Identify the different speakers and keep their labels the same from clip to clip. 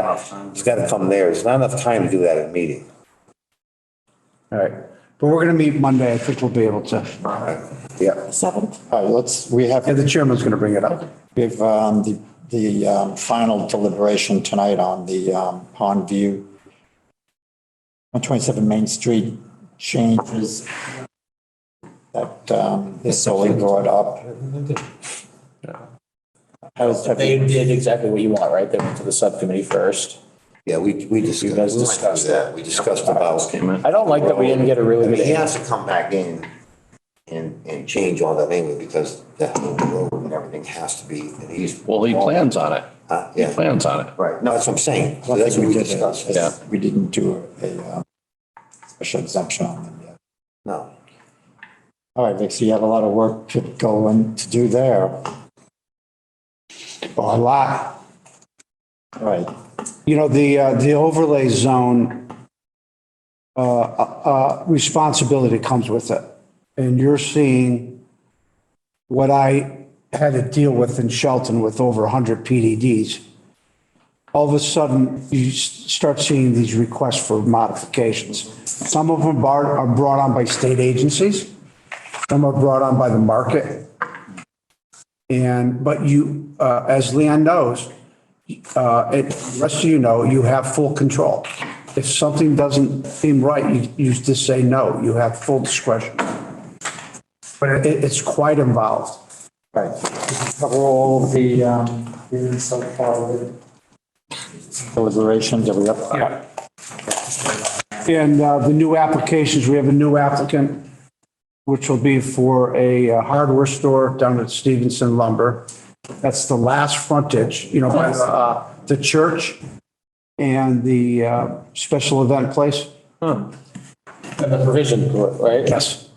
Speaker 1: that, it's gotta come there. There's not enough time to do that in a meeting.
Speaker 2: All right, but we're going to meet Monday. I think we'll be able to,
Speaker 1: Yeah,
Speaker 3: Seventh?
Speaker 4: All right, let's, we have,
Speaker 2: and the chairman's going to bring it up.
Speaker 4: we have um, the, the um, final deliberation tonight on the um, Pond View, 127 Main Street changes that um, the solely brought up. Has, have
Speaker 5: They
Speaker 4: you-
Speaker 5: did exactly what you want, right? They went to the subcommittee first.
Speaker 1: yeah, we, we
Speaker 5: You
Speaker 1: discussed, we went
Speaker 5: guys
Speaker 1: through
Speaker 5: discussed
Speaker 1: that. We discussed about.
Speaker 5: I don't like that we didn't get a really
Speaker 1: But
Speaker 5: good
Speaker 1: he
Speaker 5: answer.
Speaker 1: has to come back in and, and change all that language because that whole road and everything has to be, and he's.
Speaker 6: Well, he plans on it.
Speaker 1: Huh?
Speaker 6: He
Speaker 1: Yeah,
Speaker 6: plans on it.
Speaker 1: right. No, that's what I'm saying. So that's what we discussed.
Speaker 6: Yeah.
Speaker 4: we didn't do a um, special exemption on them yet.
Speaker 1: No.
Speaker 4: All right, Vic, so you have a lot of work to go and to do there. All
Speaker 2: A lot.
Speaker 4: right,
Speaker 2: You know, the, uh, the overlay zone uh, uh, responsibility comes with it. And you're seeing what I had to deal with in Shelton with over 100 PDDs. All of a sudden, you s- start seeing these requests for modifications. Some of them are are brought on by state agencies. Some are brought on by the market. And, but you, uh, as Leon knows, uh, it, rest of you know, you have full control. If something doesn't seem right, you, you just say no, you have full discretion. But it, it's quite involved.
Speaker 4: all right. Cover all the um, hearings so far with deliberations, are we up?
Speaker 2: Yeah. And uh, the new applications, we have a new applicant, which will be for a uh, hardware store down at Stevenson Lumber. That's the last frontage, you know, by the, uh, the church and the uh, special event place.
Speaker 5: And the provision, right?
Speaker 2: Yes,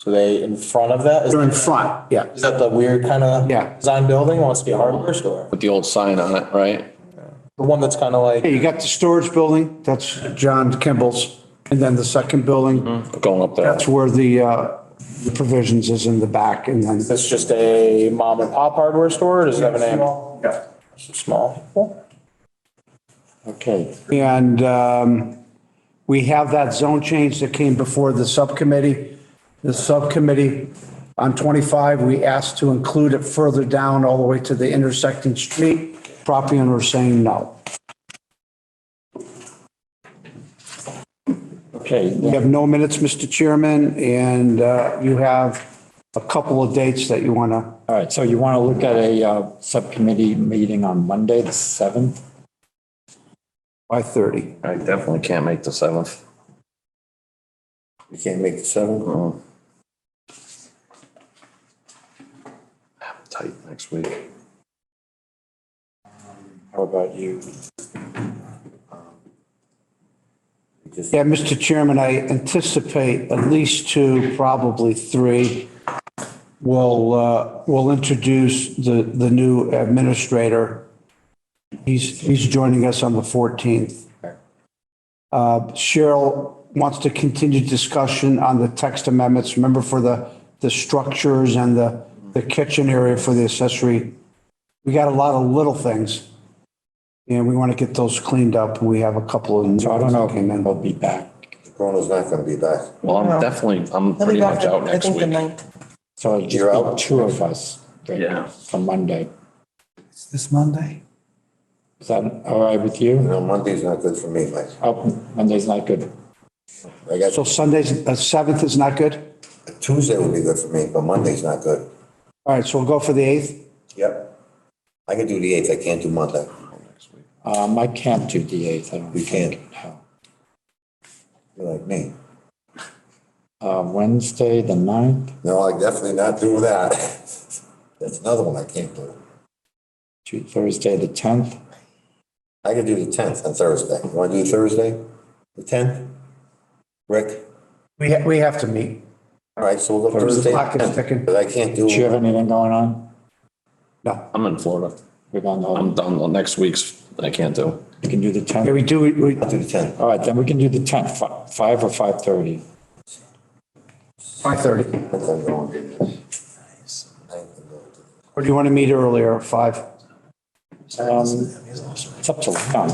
Speaker 5: So they in front of that?
Speaker 2: they're in
Speaker 5: Is-
Speaker 2: front, yeah.
Speaker 5: Is that the weird kind of?
Speaker 2: Yeah.
Speaker 5: Design building wants to be a hardware store.
Speaker 6: With the old sign on it, right?
Speaker 5: The one that's kind of like,
Speaker 2: Hey, you got the storage building, that's John Kimball's, and then the second building,
Speaker 6: Mm-hmm. Going up there.
Speaker 2: that's where the, uh, the provisions is in the back, and then
Speaker 5: that's just a mom and pop hardware store? or Does it have a name? It's Small.
Speaker 4: Okay,
Speaker 2: And um, we have that zone change that came before the subcommittee. The subcommittee on 25, we asked to include it further down all the way to the intersecting street. Property owner saying no.
Speaker 4: okay.
Speaker 2: We have no minutes, Mr. Chairman, and uh, you have a couple of dates that you want to
Speaker 4: All right, so you want to look at a uh, subcommittee meeting on Monday, the 7th?
Speaker 2: by 30.
Speaker 6: I definitely can't make the seventh.
Speaker 1: We can't make the seven.
Speaker 6: Mm. I'm tight next week.
Speaker 4: How about you?
Speaker 2: Yeah, Mr. Chairman, I anticipate at least two, probably three. We'll, uh, we'll introduce the, the new administrator. He's, he's joining us on the 14th. Uh, Cheryl wants to continue discussion on the text amendments, remember for the, the structures and the, the kitchen area for the accessory. We got a lot of little things. And we want to get those cleaned up. We have a couple of.
Speaker 4: So I don't know if
Speaker 2: Came in.
Speaker 4: we'll be back.
Speaker 1: Corona's not gonna be back.
Speaker 6: Well, I'm definitely, I'm
Speaker 3: He'll be
Speaker 6: pretty
Speaker 3: back,
Speaker 6: much out
Speaker 3: I
Speaker 6: next
Speaker 3: think, the
Speaker 6: week.
Speaker 3: ninth.
Speaker 4: So it'll
Speaker 1: You're out?
Speaker 4: just be two of us right,
Speaker 6: Yeah.
Speaker 4: for Monday. Is this Monday? Is that all right with you?
Speaker 1: No, Monday's not good for me, Mike.
Speaker 4: Oh, Monday's not good.
Speaker 1: I got,
Speaker 2: So Sunday's, uh, seventh is not good?
Speaker 1: Tuesday would be good for me, but Monday's not good.
Speaker 2: All right, so we'll go for the eighth.
Speaker 1: Yep. I can do the eighth. I can't do Monday.
Speaker 4: Um, I can't do the 8th, I don't
Speaker 1: You
Speaker 4: think. No.
Speaker 1: You're like me.
Speaker 4: Uh, Wednesday, the 9th,
Speaker 1: No, I definitely not do that. That's another one I can't do.
Speaker 4: Tu- Thursday, the 10th.
Speaker 1: I could do the tenth on Thursday. You wanna do Thursday? The tenth? Rick?
Speaker 2: We, ha- we have to meet.
Speaker 1: All right, so we'll go Thursday.
Speaker 2: clock is ticking.
Speaker 1: But I can't do.
Speaker 4: Do you have anything going on?
Speaker 2: No.
Speaker 6: I'm in Florida.
Speaker 4: We're going to,
Speaker 6: I'm done. Well, Next week's, I can't do.
Speaker 4: you can do the
Speaker 2: Yeah,
Speaker 4: 10th.
Speaker 2: we do, we- we,
Speaker 1: I'll do the tenth.
Speaker 4: All right, then we can do the 10th, fi- 5 or 5:30.
Speaker 2: five thirty.
Speaker 1: I'm going to do this. I can go to-
Speaker 2: Or do you want to meet earlier, five?
Speaker 4: Um, It's up to Leon.